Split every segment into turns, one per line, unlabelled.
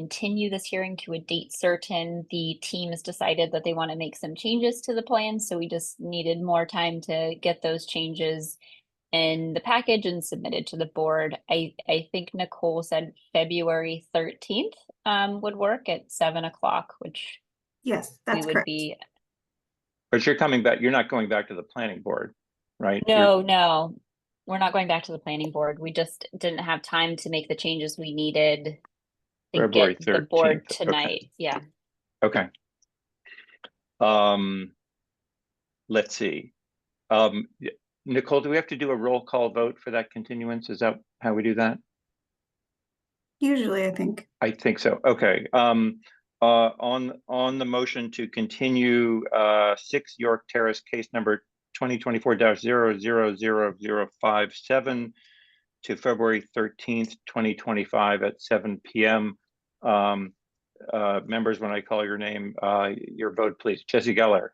continue this hearing to a date certain. The team has decided that they want to make some changes to the plan, so we just needed more time to get those changes in the package and submitted to the board. I, I think Nicole said February thirteenth, um, would work at seven o'clock, which
Yes,
we
that's
would
correct.
be,
But you're coming back, you're not going back to the planning board, right? You're-
no, no. We're not going back to the planning board. We just didn't have time to make the changes we needed to
February
get the board
13th, okay.
tonight, yeah.
Okay. Um, let's see. Um, y- Nicole, do we have to do a roll call vote for that continuance? Is that how we do that?
Usually, I think.
I think so. Okay. Um, uh, on, on the motion to continue, uh, six York Terrace case number twenty twenty-four 57 to February thirteenth, twenty twenty-five at seven PM. Um, uh, members, when I call your name, uh, your vote, please. Jesse Geller,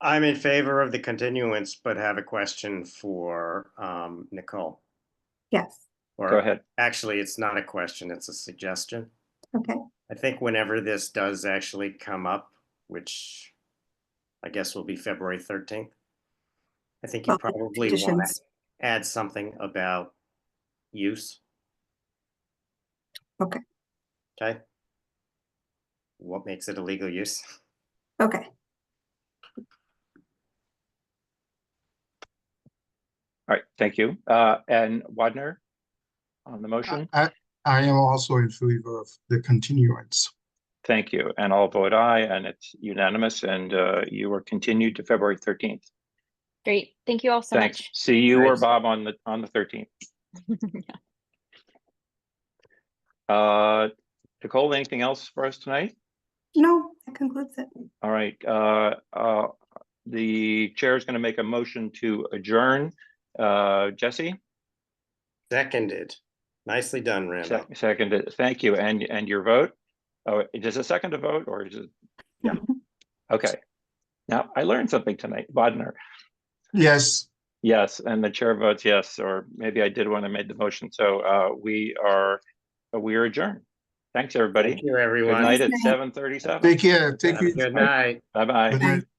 I'm in favor of the continuance, but have a question for um, Nicole.
Yes,
go
Or
ahead.
actually, it's not a question, it's a suggestion.
okay.
I think whenever this does actually come up, which I guess will be February 13th, I think you
Well,
probably want
Oh, Conditions.
to add something about use.
Okay.
Okay. What makes it a legal use?
Okay,
All right, thank you. Uh, and Wadner on the motion?
I, I am also in favor of the continuance.
Thank you, and I'll vote aye, and it's unanimous, and uh, you are continued to February thirteenth.
Great, thank you all so
Thanks.
much.
See you or
Thanks.
Bob on the, on the thirteenth. Uh, Nicole, anything else for us tonight?
no, that concludes it.
All right, uh, uh, the chair is going to make a motion to adjourn. Uh, Jesse,
Seconded. Nicely done, Randall.
sec- seconded, thank you, and, and your vote? Oh, does a second to vote or is it? Yeah, okay. Now, I learned something tonight, Bodnar.
Yes,
Yes, and the chair votes yes, or maybe I did when I made the motion. So uh, we are, we are adjourned. Thanks, everybody.
Thank you,
Good
everyone.
night
Have
at
Thanks, Nick.
seven thirty-seven.
take care, take
a
you.
Good night.
Bye-bye.
Good night.